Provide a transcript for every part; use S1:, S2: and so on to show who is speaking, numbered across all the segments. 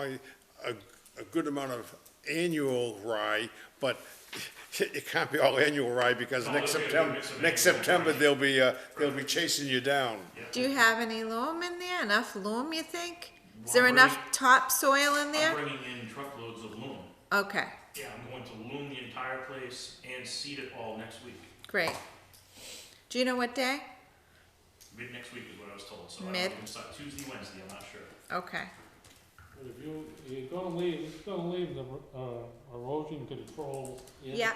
S1: buy a, a good amount of annual rye, but it can't be all annual rye because next
S2: it'll be a
S1: September,
S2: mix of
S1: next
S2: annual
S1: September, they'll be, uh, they'll be chasing you down.
S3: Do you have any loam in there? Enough loam, you think? Is there enough topsoil in
S2: I'm
S3: there?
S2: bringing in truckloads of loom.
S3: Okay,
S2: Yeah, I'm going to loom the entire place and seed it all next week.
S3: great. Do you know what day?
S2: Mid next week is what I was told, so I don't
S3: Mid.
S2: know, it's not- Tuesday, Wednesday, I'm not sure.
S3: Okay,
S4: But if you, you're gonna leave, it's gonna leave the, uh, erosion control in.
S3: yeah.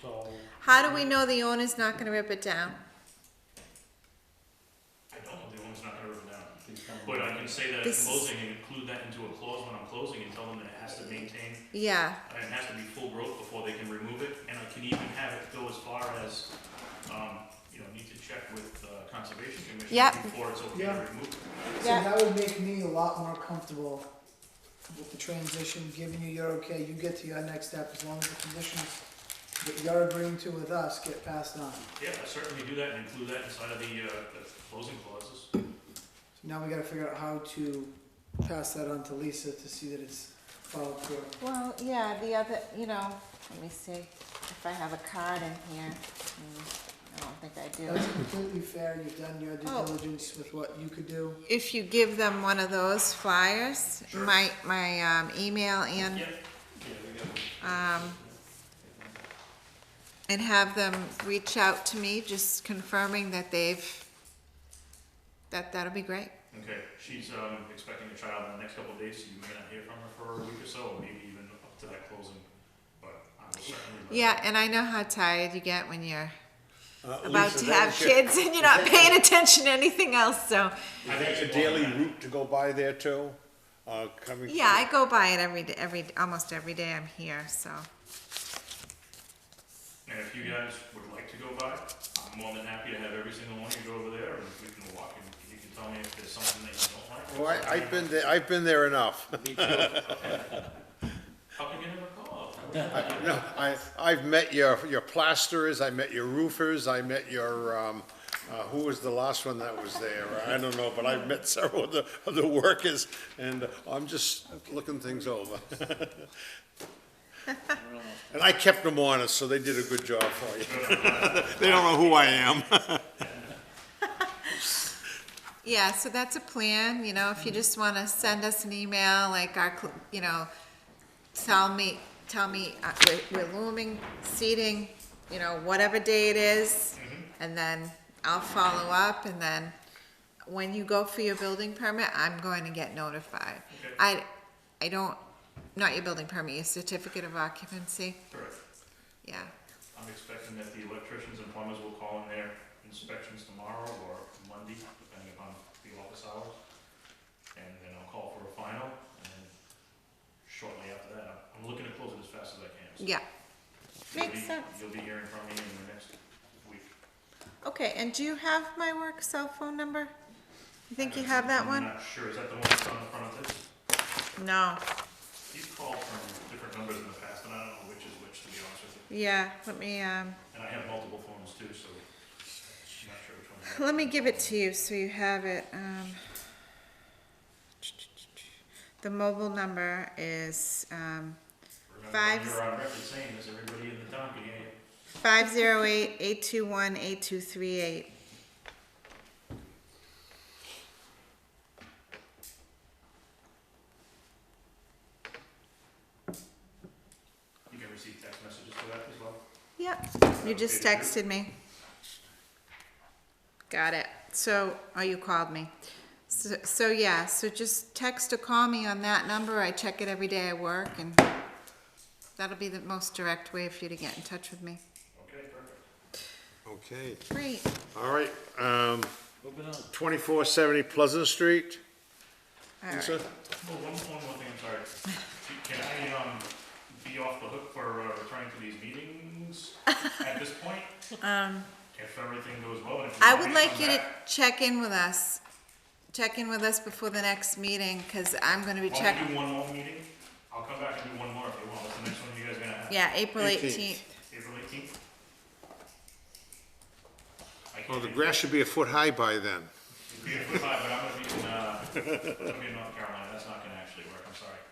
S4: So,
S3: How do we know the owner's not gonna rip it down?
S2: I don't know if the owner's not gonna rip it down. But I can say that in
S3: This-
S2: closing and include that into a clause when I'm closing and tell them that it has to maintain,
S3: Yeah,
S2: and it has to be full growth before they can remove it. And I can even have it go as far as, um, you know, need to check with, uh, Conservation Commission
S3: Yep.
S2: before it's okay
S5: Yeah.
S2: to remove it.
S5: So
S3: Yeah.
S5: that would make me a lot more comfortable with the transition, giving you your okay, you get to your next step, as long as the conditions that you're agreeing to with us get passed on.
S2: Yeah, I certainly do that and include that inside of the, uh, the closing clauses.
S5: So Now we gotta figure out how to pass that on to Lisa to see that it's followed through.
S3: well, yeah, the other, you know, let me see if I have a card in here. Hmm, I don't think I do.
S5: That's completely fair, you've done your due
S3: Oh.
S5: diligence with what you could do.
S3: If you give them one of those flyers,
S2: Sure.
S3: my, my, um, email and
S2: Yeah,
S3: um, and have them reach out to me, just confirming that they've, that, that'll be great.
S2: okay, she's, um, expecting a child in the next couple of days, so you may not hear from her for a week or so, or maybe even up to that closing, but I will certainly. let
S3: Yeah,
S2: her-
S3: and I know how tired you get when you're
S1: Uh,
S3: about
S1: Lisa,
S3: to
S1: that
S3: have
S1: is your-
S3: kids and you're not paying attention to anything else, so,
S2: I
S1: Is
S2: think
S1: that
S2: it's
S1: your
S2: more
S1: daily
S2: than that.
S1: route to go by there too? Uh, coming?
S3: yeah, I go by it every, d- every, almost every day I'm here, so.
S2: And if you guys would like to go by, I'm more than happy to have every single one of you go over there, and we can walk, and you can tell me if there's something that you don't like. or
S1: Well, I, I've been there, I've been there enough.
S2: How can you give her a call?
S1: No, I, I've met your, your plasterers, I met your roofers, I met your, um, uh, who was the last one that was there? I don't know, but I've met several of the, of the workers, and I'm just looking things over. And I kept them honest, so they did a good job for you. They don't know who I am.
S3: Yeah, so that's a plan, you know, if you just wanna send us an email, like our, cl- you know, tell me, tell me, uh, we're, we're looming, seating, you know, whatever day it is, and then I'll follow up, and then when you go for your building permit, I'm going to get notified.
S2: Okay.
S3: I, I don't, not your building permit, your certificate of occupancy,
S2: Correct.
S3: yeah.
S2: I'm expecting that the electricians and plumbers will call in their inspections tomorrow or Monday, depending upon the office hours. And then I'll call for a final, and shortly after that, I'm- I'm looking to close it as fast as I can. so
S3: Yeah,
S2: you'll
S3: makes
S2: be-
S3: sense.
S2: You'll be hearing from me in the next week.
S3: okay, and do you have my work cell phone number? You think
S2: Uh,
S3: you have that one?
S2: I'm not sure, is that the one that's on the front of this?
S3: No.
S2: You've called from different numbers in the past, and I don't know which is which, to be honest with you.
S3: Yeah, let me, um,
S2: And I have multiple phones too, so I'm not sure which one. is-
S3: let me give it to you so you have it, um. The mobile number is, um,
S2: Remember,
S3: five-
S2: you're on record saying this, everybody in the town can hear you.
S3: five zero eight eight two one eight two three eight.
S2: You can receive text messages for that as well.
S3: Yep, you just texted me. Got it. So, oh, you called me. So, so yeah, so just text or call me on that number. I check it every day I work and that'll be the most direct way for you to get in touch with me.
S2: Okay, perfect.
S1: Okay,
S3: Great.
S1: all right, um, twenty-four seventy Pleasant Street,
S3: All right.
S1: Lisa?
S2: Oh, one, one more thing, I'm sorry. Can I, um, be off the hook for uh, returning to these meetings at this point?
S3: Um,
S2: If everything goes well and if.
S3: I
S2: we
S3: would
S2: come
S3: like you to
S2: back-
S3: check in with us, check in with us before the next meeting, cause I'm gonna be
S2: Why don't
S3: checking,
S2: we do one more meeting? I'll come back and do one more if you want. What's the next one you guys gonna have?
S3: yeah, April
S1: 18th.
S3: eighteenth.
S2: April eighteenth? I
S1: Well, the
S2: can't be,
S1: Oh, grass should be a foot high by then.
S2: be a foot high, but I'm gonna be in, uh, It's gonna be in North Carolina, that's not gonna actually work, I'm sorry.